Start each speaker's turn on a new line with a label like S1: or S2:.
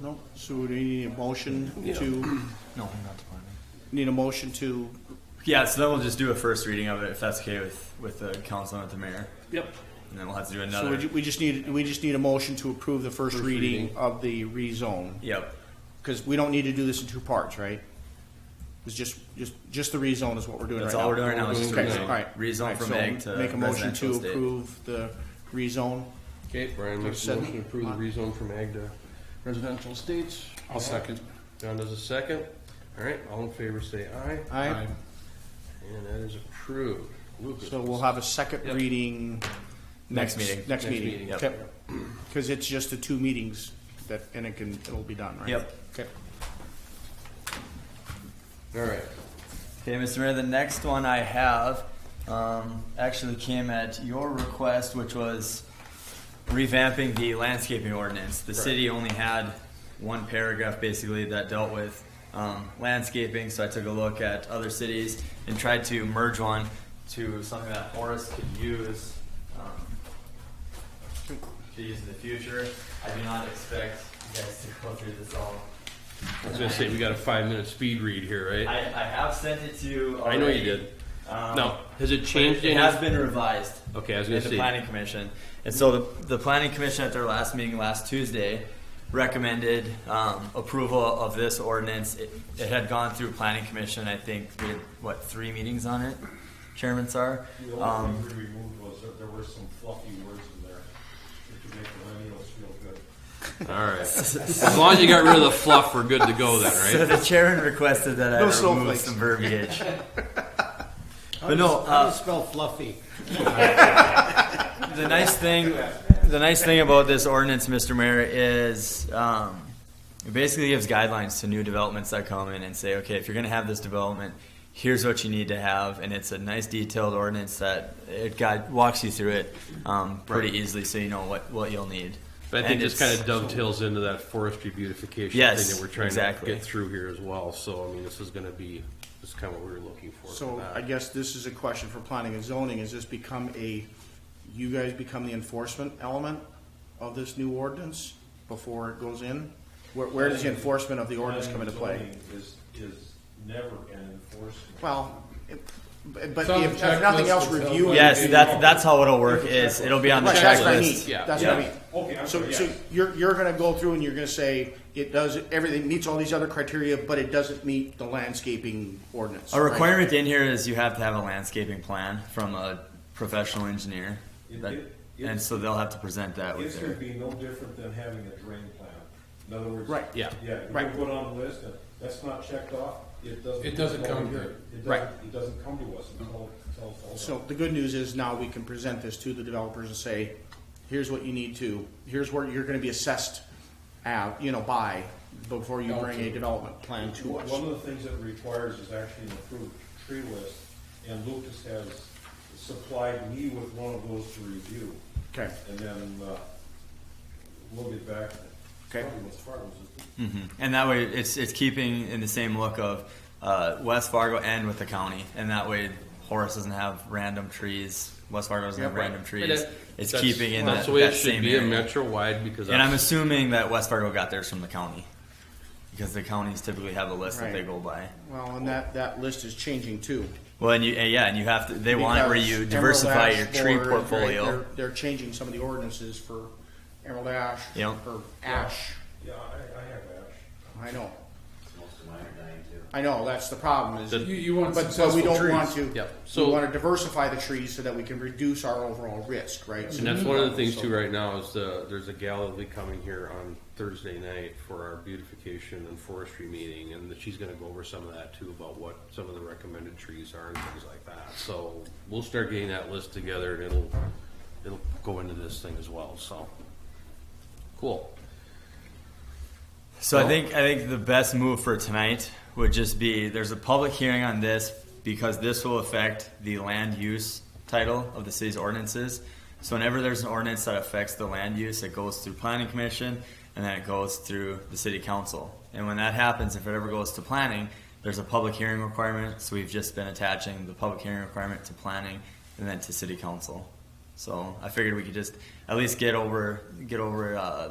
S1: No, so we need a motion to,
S2: No, I'm not department.
S1: need a motion to,
S3: Yeah, so then we'll just do a first reading of it if that's okay with, with the council and with the mayor.
S4: Yep.
S3: And then we'll have to do
S1: so
S3: another.
S1: we ju- we just need, we just need a motion to approve the first reading of the rezone.
S3: Yep.
S1: Because we don't need to do this in two parts, right? It's just, just, just the rezone is what we're doing right now.
S3: That's all we're doing right now is just
S1: Okay,
S3: rezone.
S1: all right.
S3: Rezone
S1: All right,
S3: from
S1: so
S3: ag to
S1: Make a motion to
S3: residential estate.
S1: approve the rezone.
S2: Okay, Brian makes a
S1: Second.
S2: motion to approve the rezone from ag to residential estates.
S5: I'll second.
S2: John does a second. All right, all in favor say aye,
S1: Aye.
S2: and that is approved. Lucas.
S1: So we'll have a second
S2: Yep.
S1: reading.
S3: Next meeting.
S1: Next meeting.
S2: meeting,
S3: yep.
S1: Because it's just the two meetings that, and it can, it'll be done, right?
S3: Yep.
S1: Okay.
S2: All right,
S3: Okay, Mr. Mayor, the next one I have um, actually came at your request, which was revamping the landscaping ordinance. The city only had one paragraph basically that dealt with um, landscaping, so I took a look at other cities and tried to merge one to something that Horace could use. Um, could use in the future. I do not expect you guys to go through this all.
S5: I was gonna say, we got a five-minute speed read here,
S3: I,
S5: right?
S3: I have sent it to. you
S5: I know
S3: already.
S5: you did.
S3: Um,
S5: Now, has it
S3: but
S5: changed
S3: It has
S5: any?
S3: been revised
S5: Okay, I was
S3: in
S5: gonna
S3: the
S5: say,
S3: planning commission. And so the, the planning commission at their last meeting last Tuesday recommended um, approval of this ordinance. It, it had gone through planning commission, I think, we had, what, three meetings on it, Chairman Sar?
S6: The only
S3: Um,
S6: thing we removed was that there were some fluffy words in there that could make millennials feel good.
S5: all right. As long as you got rid of the fluff, we're good to go
S3: So
S5: then, right?
S3: the chairman requested that
S1: No
S3: I remove
S1: snowflakes.
S3: some verbiage. But no, uh,
S7: Spell fluffy.
S3: the nice thing, the nice thing about this ordinance, Mr. Mayor, is um, it basically gives guidelines to new developments that come in and say, okay, if you're going to have this development, here's what you need to have, and it's a nice detailed ordinance that it guide, walks you through it um, pretty easily, so you know what what you'll need.
S5: But I think
S3: And
S5: this
S3: it's-
S5: kind of dovetails into that forestry beautification thing
S3: Yes,
S5: that we're trying to
S3: exactly.
S5: get through here as well, so, I mean, this is gonna be, this is kind of what we were looking for.
S1: So
S5: for that.
S1: I guess this is a question for planning and zoning, is this become a, you guys become the enforcement element of this new ordinance before it goes in? Where, where does the enforcement of the ordinance come into play?
S6: Zoning Is, is never an enforcement.
S1: Well, it- but but
S5: on
S1: if,
S5: the
S1: if nothing
S5: checklist,
S1: else,
S5: it's on-
S1: review. it.
S3: yes, that's that's how it'll work. Is it'll be on the
S1: Right, That's what I
S3: checklist.
S1: mean,
S5: yeah.
S1: that's what I mean.
S6: Okay, I'm
S1: So,
S6: sorry,
S1: so
S6: yes.
S1: you're, you're gonna go through and you're gonna say, it does, everything meets all these other criteria, but it doesn't meet the landscaping ordinance.
S3: A
S1: right?
S3: requirement in here is you have to have a landscaping plan from a professional engineer,
S6: It-
S3: that,
S6: it-
S3: and
S6: it's-
S3: so they'll have to present that
S6: It's
S3: with
S6: gonna
S3: their.
S6: be no different than having a drain plan. In other words.
S1: Right.
S5: Yeah.
S6: Yeah, you
S1: Right.
S6: put on the list, and that's not checked off, it doesn't.
S5: It doesn't come
S6: here.
S5: here.
S6: It
S5: Right.
S6: doesn't, it doesn't come to us until, until. it's all done.
S1: So the good news is now we can present this to the developers and say, here's what you need to, here's where you're gonna be assessed at, you know, by, before you bring a development plan to
S6: One
S1: us.
S6: one of the things that it requires is actually an approved tree list, and Lucas has supplied me with one of those to review.
S1: Okay.
S6: And then, uh, we'll get back.
S1: Okay. Hmm.
S6: Probably was Fargo's, isn't it?
S3: And that way, it's it's keeping in the same look of uh, West Fargo and with the county, and that way Horace doesn't have random trees. West Fargo doesn't
S1: Yeah,
S3: have
S1: right.
S3: random
S5: And
S3: trees.
S5: that-
S3: It's
S5: that's-
S3: keeping in
S5: That's
S3: that,
S5: the way
S3: that
S5: it should
S3: same
S5: be, a
S3: area.
S5: metro-wide, because.
S3: And I'm
S5: that's-
S3: assuming that West Fargo got theirs from the county, because the counties typically have a list that they
S1: Right.
S3: go by.
S1: Well, and that, that list is changing too.
S3: Well, and you and yeah, and you have to. They want it where
S1: Because
S3: you
S1: Emerald
S3: diversify
S1: Ash
S3: your tree
S1: board, right,
S3: portfolio.
S1: They're, they're changing some of the ordinances for Emerald Ash.
S3: Yep.
S1: Or ash,
S6: Yeah, I, I have
S1: I
S6: ash.
S1: know. I know, that's the problem is.
S5: The- You- you
S1: want But we don't
S5: trees.
S1: want to,
S5: Yep.
S1: we
S5: So-
S1: wanna diversify the trees so that we can reduce our overall risk, right? So
S5: And that's one of the things too right now is the, there's a gal that'll be coming here on Thursday night for our beautification and forestry meeting and she's gonna go over some of that too about what some of the recommended trees are and things like that. So we'll start getting that list together and it'll, it'll go into this thing as well, so. Cool.
S3: So I think I think the best move for tonight would just be there's a public hearing on this because this will affect the land use title of the city's ordinances. So whenever there's an ordinance that affects the land use, it goes through planning commission and then it goes through the city council. And when that happens, if it ever goes to planning, there's a public hearing requirement. So we've just been attaching the public hearing requirement to planning and then to city council. So I figured we could just at least get over get over uh,